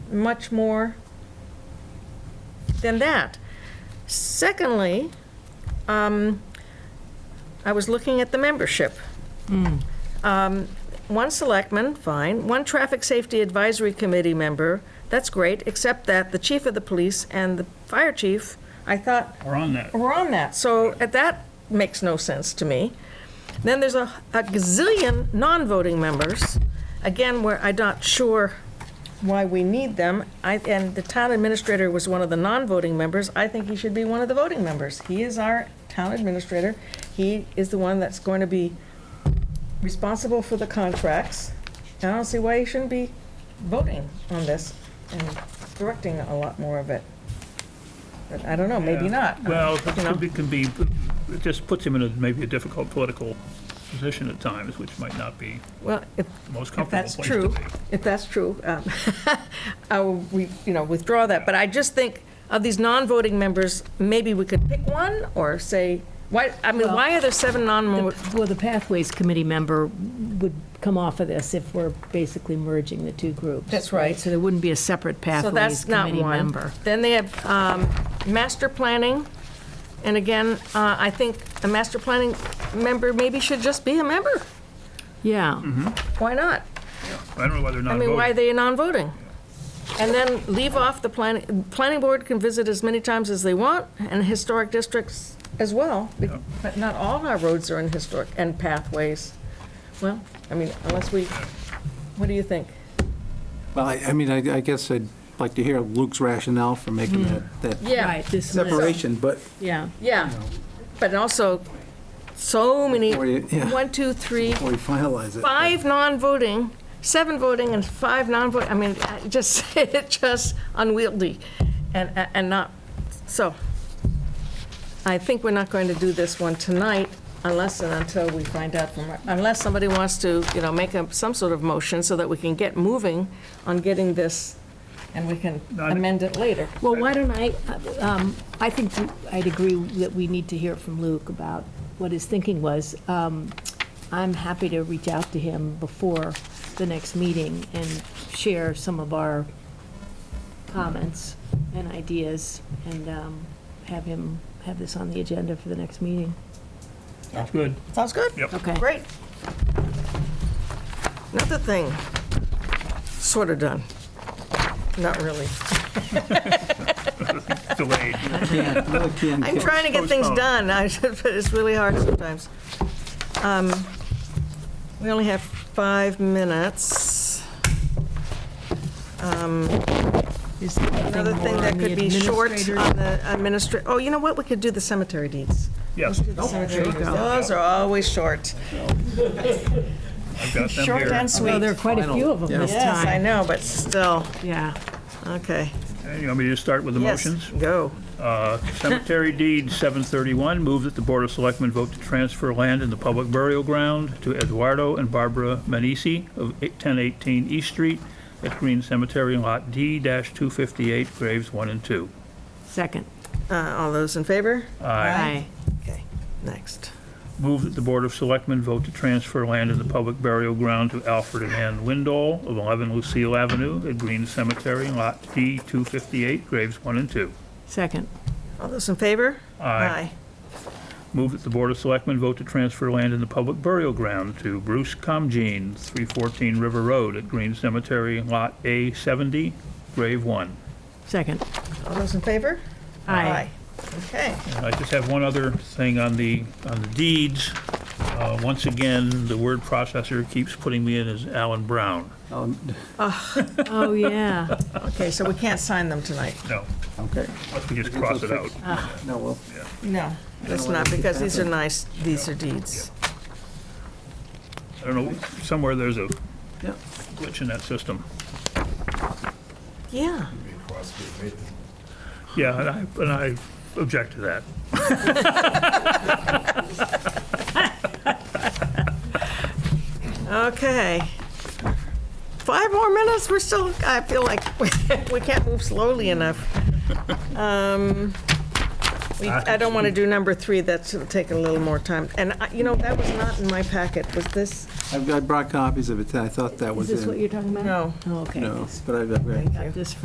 much more than that. Secondly, um, I was looking at the membership. Um, One selectman, fine. One traffic safety advisory committee member, that's great, except that the chief of the police and the fire chief, I thought, We're on that. we're on that. So uh, that makes no sense to me. Then there's a a gazillion non-voting members, again, where I'm not sure why we need them. I- And the town administrator was one of the non-voting members. I think he should be one of the voting members. He is our town administrator. He is the one that's going to be responsible for the contracts. I don't see why he shouldn't be voting on this and directing a lot more of it. But I don't know, maybe not. Well, it You know. could be- can be, it just puts him in a, maybe a difficult political position at times, which might not be Well, if, the most if comfortable that's place to true, be. if that's true, um, I will, we, you know, withdraw that, but I just think of these non-voting members, maybe we could pick one, or say, why, I mean, why are there seven non, The- Well, the Pathways Committee member would come off of this if we're basically merging the two groups. That's right. So there wouldn't be a separate so Pathways that's not Committee one. member. Then they have um, master planning, and again, uh, I think a master planning member maybe should just be a member, Yeah, why not? I don't know whether or I not mean, why are voting, they non-voting? And then leave off the planning, planning board can visit as many times as they want, and historic districts as well, be- Yeah. but not all our roads are in historic, and pathways. Well, I mean, unless we, what do you think? Well, I I mean, I I guess I'd like to hear Luke's rationale for making that- that Yeah, right, this one, separation, but yeah. yeah, but also, so many, Before you- yeah. one, two, three, before we finalize it. five non-voting, seven voting and five non-voting, I mean, I just, it just unwieldy and, and not, so. I think we're not going to do this one tonight unless and until we find out from, unless somebody wants to, you know, make up some sort of motion so that we can get moving on getting this and we can Not- amend it later. Well, why don't I, um, I think I'd agree that we need to hear from Luke about what his thinking was. Um, I'm happy to reach out to him before the next meeting and share some of our comments and ideas and um, have him, have this on the agenda for the next meeting. that's good. Sounds good? Yep. Okay. Great. Another thing, sort of done. Not really. Delayed. Yeah, another can I'm kick. trying to get things Postpone. done, I should, but it's really hard sometimes. Um, We only have five minutes. Um, Is there anything Another thing more that on could the be short administrator? on the administr, oh, you know what, we could do the cemetery deeds. Yes, Do the cemetery deeds. Those are always short. I've got them Short here. and Well, Oh, there are sweet. quite a few of them this Yes, I time. know, but still, Yeah. okay. Okay, You want me to just start with the Yes, motions? Go. Uh, Cemetery deed 731, move that the Board of Selectmen vote to transfer land in the public burial ground to Eduardo and Barbara Manisi of 1018 East Street at Green Cemetery Lot D-258, graves 1 and 2. Second. Uh, All those in favor? Aye. Aye. Okay, next. Move that the Board of Selectmen vote to transfer land in the public burial ground to Alfred and Ann Windall of 11 Lucille Avenue at Green Cemetery Lot D-258, graves 1 and 2. Second. All those in favor? Aye. Move that the Board of Selectmen vote to transfer land in the public burial ground to Bruce Comgene, 314 River Road at Green Cemetery, Lot A70, Grave 1. Second. All those in favor? Aye. Okay. And I just have one other thing on the, on the deeds. Uh, Once again, the word processor keeps putting me in as Alan Brown. Um, Oh, yeah. Okay, so we can't sign them tonight? No, Okay. unless we just cross it out. No, well, No. That's not, because these are nice, these are deeds. I don't know, somewhere there's a yeah. glitch in that system. Yeah. Yeah, and I, and I object to that. Okay. Five more minutes, we're still, I feel like we can't move slowly enough. Um, we- I don't want to do number three, that's, it'll take a little more time. And, I- you know, that was not in my packet, was this? I've- I brought copies of it, I thought that Is was this what in. you're talking about? No. Oh, okay. No, but I've, I've- Got this